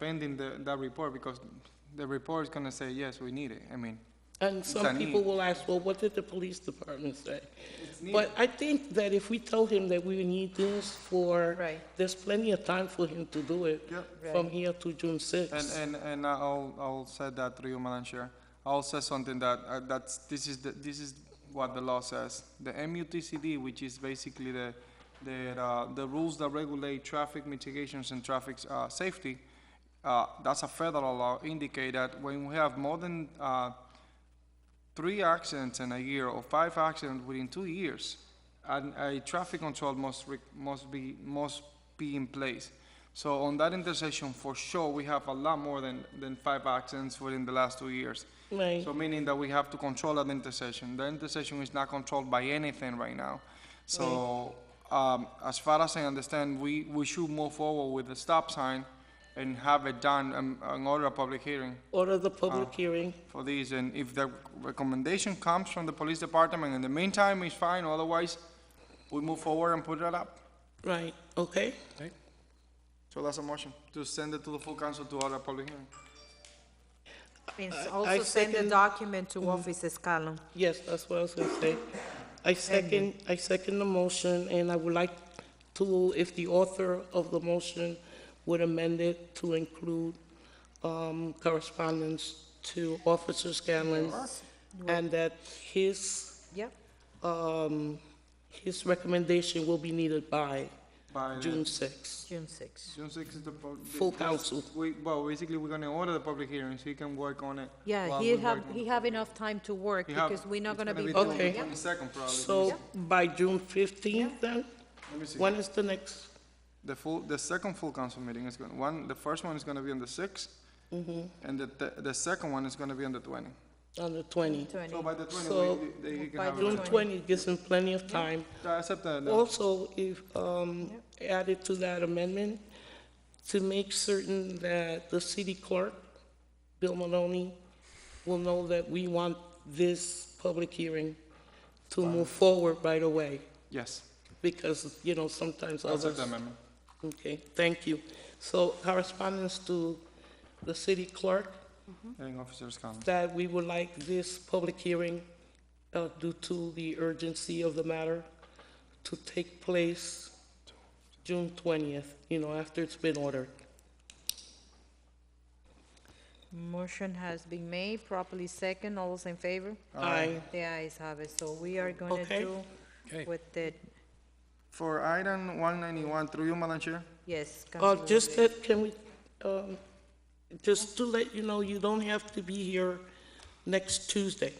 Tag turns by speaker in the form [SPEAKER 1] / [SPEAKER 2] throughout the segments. [SPEAKER 1] pending the, that report, because the report is gonna say, yes, we need it, I mean.
[SPEAKER 2] And
[SPEAKER 1] a
[SPEAKER 2] some
[SPEAKER 1] need.
[SPEAKER 2] people will ask, well, what did the police department say? But I think that if we tell him that we need this for,
[SPEAKER 3] Right.
[SPEAKER 2] there's plenty of time for him to do it
[SPEAKER 1] Yeah.
[SPEAKER 2] from
[SPEAKER 3] Right.
[SPEAKER 2] here to June
[SPEAKER 1] And,
[SPEAKER 2] 6th.
[SPEAKER 1] and, and I'll, I'll say that through you, Madam Chair. I'll say something that, uh, that's, this is, the- this is what the law says. The MUTCD, which is basically the, the, uh, the rules that regulate traffic mitigations and traffic, uh, safety, uh, that's a federal law, indicate that when we have more than, uh, three accidents in a year or five accidents within two years, and a traffic control must, re- must be, must be in place. So on that intersection, for sure, we have a lot more than, than five accidents within the last two years.
[SPEAKER 2] Right.
[SPEAKER 1] So meaning that we have to control that intersection. The intersection is not controlled by anything right now. So, um, as far as I understand, we, we should move forward with the stop sign and have it done, um, and order a public hearing
[SPEAKER 2] Order the
[SPEAKER 1] uh,
[SPEAKER 2] public hearing.
[SPEAKER 1] for these, and if the recommendation comes from the police department, in the meantime, it's fine, otherwise, we move forward and put that up.
[SPEAKER 2] Right, okay?
[SPEAKER 1] So that's a motion, to send it to the full council to order a public hearing.
[SPEAKER 3] Means
[SPEAKER 2] I- I
[SPEAKER 3] also send the
[SPEAKER 2] second-
[SPEAKER 3] document to Office Escalon.
[SPEAKER 2] Yes, that's what I was gonna say. I second, I second the motion, and I would like to, if the author of the motion would amend it to include um, correspondence to Officer Scanlon, and that his,
[SPEAKER 3] Yep,
[SPEAKER 2] um, his recommendation will be needed by
[SPEAKER 1] By
[SPEAKER 2] June 6th.
[SPEAKER 3] June 6.
[SPEAKER 1] June sixth is the. pub- the-
[SPEAKER 2] Full council.
[SPEAKER 1] We, well, basically, we're gonna order the public hearing, so he can work on it.
[SPEAKER 3] Yeah,
[SPEAKER 1] while
[SPEAKER 3] he
[SPEAKER 1] we
[SPEAKER 3] have,
[SPEAKER 1] work on
[SPEAKER 3] he
[SPEAKER 1] it.
[SPEAKER 3] have enough time to work
[SPEAKER 1] He have-
[SPEAKER 3] because we're not
[SPEAKER 1] it's
[SPEAKER 3] gonna be.
[SPEAKER 1] till
[SPEAKER 2] Okay.
[SPEAKER 1] the
[SPEAKER 3] Yeah.
[SPEAKER 1] 22nd probably.
[SPEAKER 2] So by June 15th then?
[SPEAKER 1] Let me see.
[SPEAKER 2] When is the next?
[SPEAKER 1] The full, the second full council meeting is gonna, one, the first one is gonna be on the sixth,
[SPEAKER 3] Mm-hmm.
[SPEAKER 1] and the, the, the second one is gonna be on the twenty.
[SPEAKER 2] On the 20th.
[SPEAKER 3] Twenty.
[SPEAKER 1] So by the
[SPEAKER 2] So,
[SPEAKER 1] twenty, they, they can
[SPEAKER 3] by
[SPEAKER 1] have it.
[SPEAKER 2] June
[SPEAKER 1] done.
[SPEAKER 2] 20th gives him plenty of time
[SPEAKER 1] I accept that, uh,
[SPEAKER 2] Also, if, um, added to that amendment, to make certain that the city clerk, Bill Maloney, will know that we want this public hearing to move forward right away,
[SPEAKER 1] yes,
[SPEAKER 2] because, you know, sometimes
[SPEAKER 1] I accept
[SPEAKER 2] others.
[SPEAKER 1] the amendment.
[SPEAKER 2] Okay, thank you. So correspondence to the city clerk
[SPEAKER 1] Hearing officers come.
[SPEAKER 2] that we would like this public hearing, uh, due to the urgency of the matter, to take place June twentieth, you know, after it's been ordered.
[SPEAKER 3] Motion has been made, properly second, all those in favor?
[SPEAKER 2] Aye.
[SPEAKER 3] The ayes have it, so we are gonna
[SPEAKER 2] Okay.
[SPEAKER 3] do with the,
[SPEAKER 1] For item one ninety-one, through you, Madam Chair,
[SPEAKER 3] yes.
[SPEAKER 2] Uh,
[SPEAKER 3] Councilor
[SPEAKER 2] just
[SPEAKER 3] Lee.
[SPEAKER 2] that, can we, um, just to let you know, you don't have to be here next Tuesday.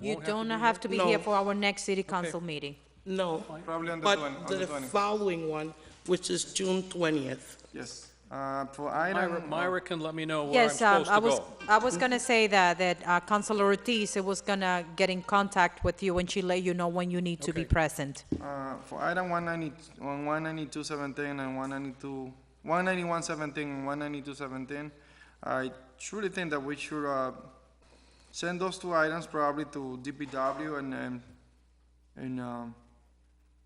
[SPEAKER 3] You don't have to be here
[SPEAKER 2] No.
[SPEAKER 3] for our next city council meeting.
[SPEAKER 2] No,
[SPEAKER 1] probably on the
[SPEAKER 2] but
[SPEAKER 1] twenty, on the
[SPEAKER 2] the
[SPEAKER 1] twenty,
[SPEAKER 2] following one, which is June twentieth.
[SPEAKER 1] yes. Uh, for item.
[SPEAKER 4] Myra, Myra can let me know where I'm
[SPEAKER 3] Yes, um,
[SPEAKER 4] supposed
[SPEAKER 3] I
[SPEAKER 4] to
[SPEAKER 3] was,
[SPEAKER 4] go.
[SPEAKER 3] I was gonna say that, that uh, Councilor Ortiz was gonna get in contact with you and she let you know when you need to be
[SPEAKER 4] Okay.
[SPEAKER 3] present.
[SPEAKER 1] Uh, for item one ninety, on one ninety-two seventeen and one ninety-two, one ninety-one seventeen and one ninety-two seventeen, I truly think that we should, uh, send those two items probably to DPW and, and, and, um,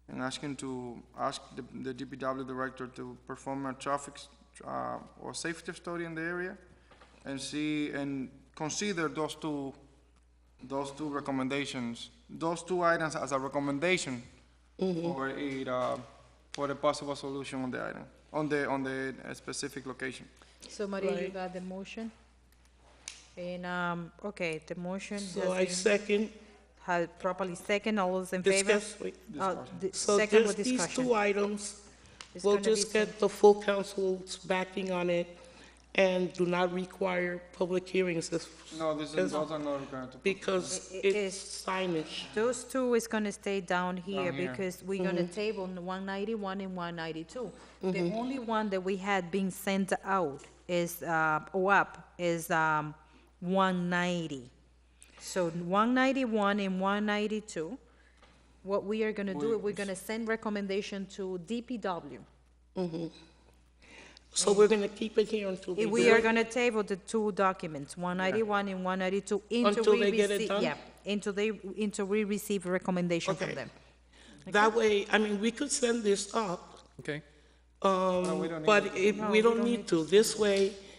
[SPEAKER 1] and ask him to, ask the, the DPW director to perform a traffic, s- uh, or safety study in the area and see, and consider those two, those two recommendations, those two items as a recommendation for it, uh, for a possible solution on the item, on the, on the uh, specific location.
[SPEAKER 3] So Maria, you
[SPEAKER 2] Right.
[SPEAKER 3] got the motion? And, um, okay, the motion
[SPEAKER 2] So I
[SPEAKER 3] has been,
[SPEAKER 2] second,
[SPEAKER 3] has properly second, all those in favor?
[SPEAKER 2] discuss, wait.
[SPEAKER 3] Uh, di-
[SPEAKER 2] So
[SPEAKER 3] Second with
[SPEAKER 2] just these two
[SPEAKER 3] discussion.
[SPEAKER 2] items,
[SPEAKER 3] It's
[SPEAKER 2] we'll
[SPEAKER 3] gonna be
[SPEAKER 2] just get the full council's backing on it and do not require public hearings as-
[SPEAKER 1] No, this
[SPEAKER 2] Yes.
[SPEAKER 1] is, those are not required to.
[SPEAKER 2] because
[SPEAKER 3] I- i-
[SPEAKER 2] it's signage.
[SPEAKER 3] Those two is gonna stay down here
[SPEAKER 1] here.
[SPEAKER 3] because we're
[SPEAKER 2] Mm-hmm.
[SPEAKER 3] gonna table one ninety-one and one ninety-two. The only one that we had been sent out is, uh, or up, is, um, one ninety. So one ninety-one and one ninety-two, what we are gonna do, we're gonna send recommendation to DPW.
[SPEAKER 2] So we're going to keep it here until we
[SPEAKER 3] If
[SPEAKER 2] do
[SPEAKER 3] We are
[SPEAKER 2] it.
[SPEAKER 3] gonna table the two documents, one ninety-one and one ninety-two, until
[SPEAKER 2] Until
[SPEAKER 3] we
[SPEAKER 2] they get it
[SPEAKER 3] receive,
[SPEAKER 2] done?
[SPEAKER 3] yeah, until they, until we receive a recommendation from
[SPEAKER 2] Okay.
[SPEAKER 3] them.
[SPEAKER 2] That way, I mean, we could send this up
[SPEAKER 4] Okay,
[SPEAKER 2] Um,
[SPEAKER 1] we don't need
[SPEAKER 2] But it, we don't need to. This way,